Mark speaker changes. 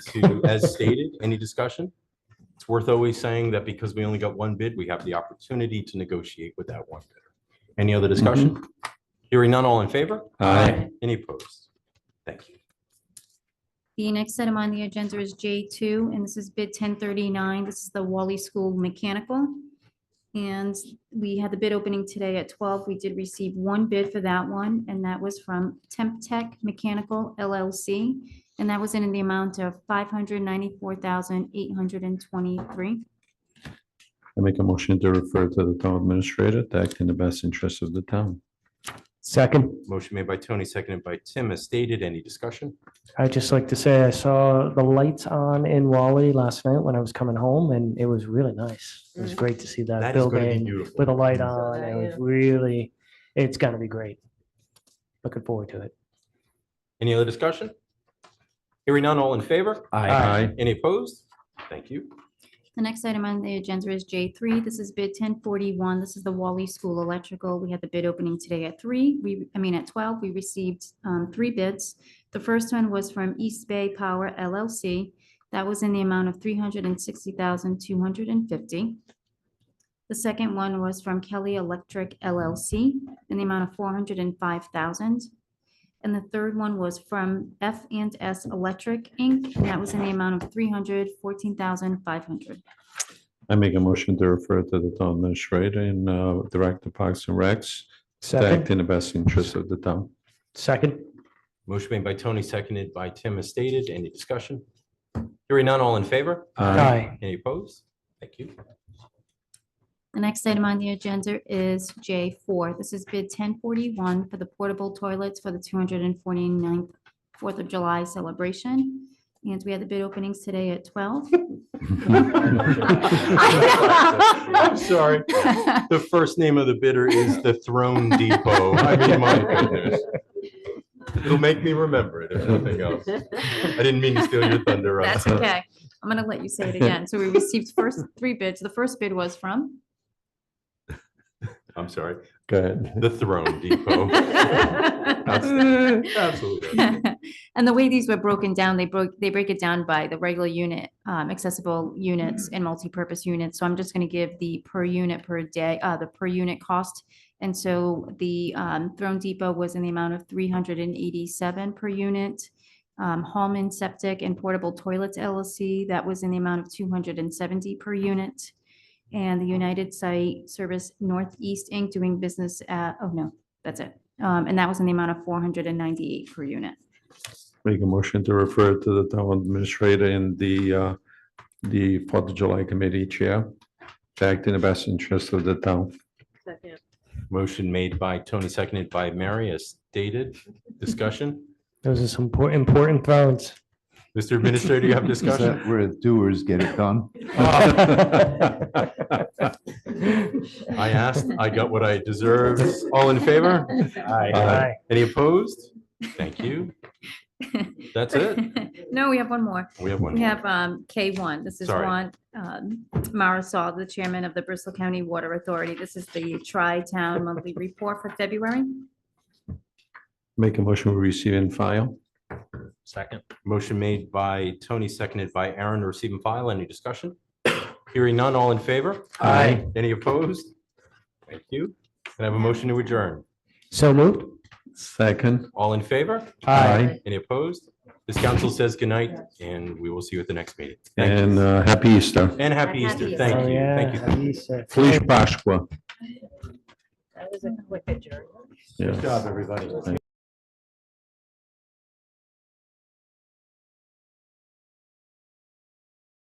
Speaker 1: to as stated. Any discussion? It's worth always saying that because we only got one bid, we have the opportunity to negotiate with that one bidder. Any other discussion? Hearing none, all in favor?
Speaker 2: Mm-hmm. Aye.
Speaker 1: Any opposed? Thank you.
Speaker 3: The next item on the agenda is J2, and this is bid 1039. This is the Wally School Mechanical. And we had the bid opening today at 12. We did receive one bid for that one, and that was from Temp Tech Mechanical LLC. And that was in the amount of 594823
Speaker 2: I make a motion to refer to the town administrator to act in the best interest of the town.
Speaker 4: Second,
Speaker 1: Motion made by Tony, seconded by Tim as stated. Any discussion?
Speaker 4: I'd just like to say I saw the lights on in Wally last night when I was coming home and it was really nice. It was great to see that
Speaker 1: That is going to be
Speaker 4: building
Speaker 1: beautiful.
Speaker 4: with a light
Speaker 5: Saw
Speaker 4: on.
Speaker 5: that,
Speaker 4: It was
Speaker 5: yeah.
Speaker 4: really, it's gonna be great. Looking forward to it.
Speaker 1: Any other discussion? Hearing none, all in favor?
Speaker 2: Aye. Aye.
Speaker 1: Any opposed? Thank you.
Speaker 3: The next item on the agenda is J3. This is bid 1041. This is the Wally School Electrical. We had the bid opening today at 3, we, I mean, at 12. We received um, three bids. The first one was from East Bay Power LLC. That was in the amount of 360250 The second one was from Kelly Electric LLC in the amount of 405000 and the third one was from F and S Electric Inc., and that was in the amount of three hundred fourteen thousand five hundred.
Speaker 2: I make a motion to refer to the town administrator and uh, direct the Parks and Recs to act
Speaker 4: Second,
Speaker 2: in the best interest of the town.
Speaker 4: second,
Speaker 1: Motion made by Tony, seconded by Tim as stated. Any discussion? Hearing none, all in favor?
Speaker 4: aye,
Speaker 1: Any opposed? Thank you.
Speaker 3: The next item on the agenda is J four. This is bid ten forty-one for the portable toilets for the 249th Fourth of July celebration. And we had the bid openings today at twelve.
Speaker 1: I'm sorry. The first name of the bidder is the Throne Depot. I mean, my goodness. It'll make me remember it, if nothing else. I didn't mean to steal your thunder. Rob.
Speaker 3: That's okay. I'm gonna let you say it again. So we received first three bids. The first bid was from
Speaker 1: I'm sorry.
Speaker 2: Go ahead.
Speaker 1: The Throne Depot. Absolutely.
Speaker 3: And the way these were broken down, they broke, they break it down by the regular unit, um, accessible units and multipurpose units. So I'm just gonna give the per unit per day, uh, the per unit cost. And so the, um, Throne Depot was in the amount of three hundred and eighty-seven per unit. Um, Hallman Septic and Portable Toilets LLC, that was in the amount of two hundred and seventy per unit. And the United Site Service Northeast Inc. doing business at, oh no, that's it. Um, and that was in the amount of four hundred and ninety-eight per unit.
Speaker 2: Make a motion to refer to the town administrator and the, uh, the Fourth of July Committee Chair to act in the best interest of the town.
Speaker 5: Second.
Speaker 1: Motion made by Tony, seconded by Mary as stated. Discussion?
Speaker 4: those are some important, important thrones.
Speaker 1: Mr. Administrator, you have
Speaker 6: Is
Speaker 1: discussion? Uh,
Speaker 6: that where doers get it done?
Speaker 1: I asked, I got what I deserved. All in favor?
Speaker 4: Aye.
Speaker 1: Any opposed? Thank you. That's it.
Speaker 3: No, we have one more.
Speaker 1: We have one.
Speaker 3: We have um, K1. This is
Speaker 1: Sorry.
Speaker 3: Ron um, Marisol, the chairman of the Bristol County Water Authority. This is the Tri-Town Monthly Report for February.
Speaker 2: Make a motion, we receive and file.
Speaker 1: Second. Motion made by Tony, seconded by Aaron, receive and file. Any discussion? Hearing none, all in favor?
Speaker 4: Aye.
Speaker 1: Any opposed? Thank you. Can I have a motion to adjourn?
Speaker 4: So moved?
Speaker 2: Second.
Speaker 1: All in favor?
Speaker 4: Aye.
Speaker 1: Any opposed? This council says goodnight, and we will see you at the next meeting. Thank you.
Speaker 2: And uh, happy Easter.
Speaker 1: And happy
Speaker 3: Happy
Speaker 1: Easter.
Speaker 3: Easter.
Speaker 4: Oh,
Speaker 1: Thank you. Thank you.
Speaker 4: yeah,
Speaker 1: Thank you.
Speaker 4: Lisa.
Speaker 2: Feliz Páscoa.
Speaker 5: That was a quick adjourn.
Speaker 2: Yes.
Speaker 1: everybody.